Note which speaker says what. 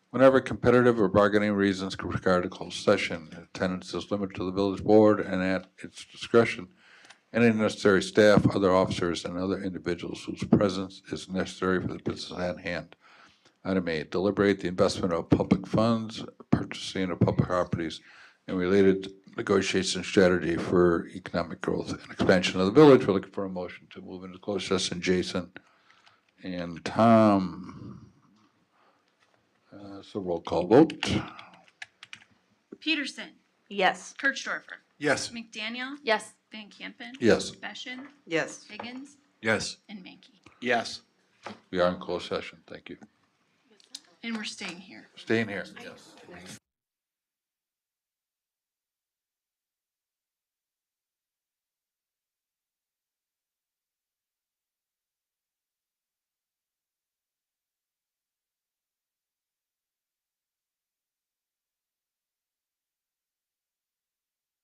Speaker 1: Whenever competitive or bargaining reasons require a closed session, attendance is limited to the village board and at its discretion. Any necessary staff, other officers, and other individuals whose presence is necessary for the business at hand. Item A, deliberate the investment of public funds, purchasing of public properties, and related negotiation strategy for economic growth and expansion of the village. We're looking for a motion to move into closed session. Jason and Tom. Uh, So roll call vote.
Speaker 2: Peterson,
Speaker 3: Yes.
Speaker 2: Kirchdorfer,
Speaker 4: Yes.
Speaker 2: McDaniel,
Speaker 3: Yes.
Speaker 2: Van Campen,
Speaker 1: Yes,
Speaker 2: Beshin,
Speaker 3: Yes.
Speaker 2: Higgins,
Speaker 4: Yes.
Speaker 2: and Mankey.
Speaker 4: Yes.
Speaker 1: we are in closed session. Thank you.
Speaker 2: And we're staying here.
Speaker 1: Staying here. Yes.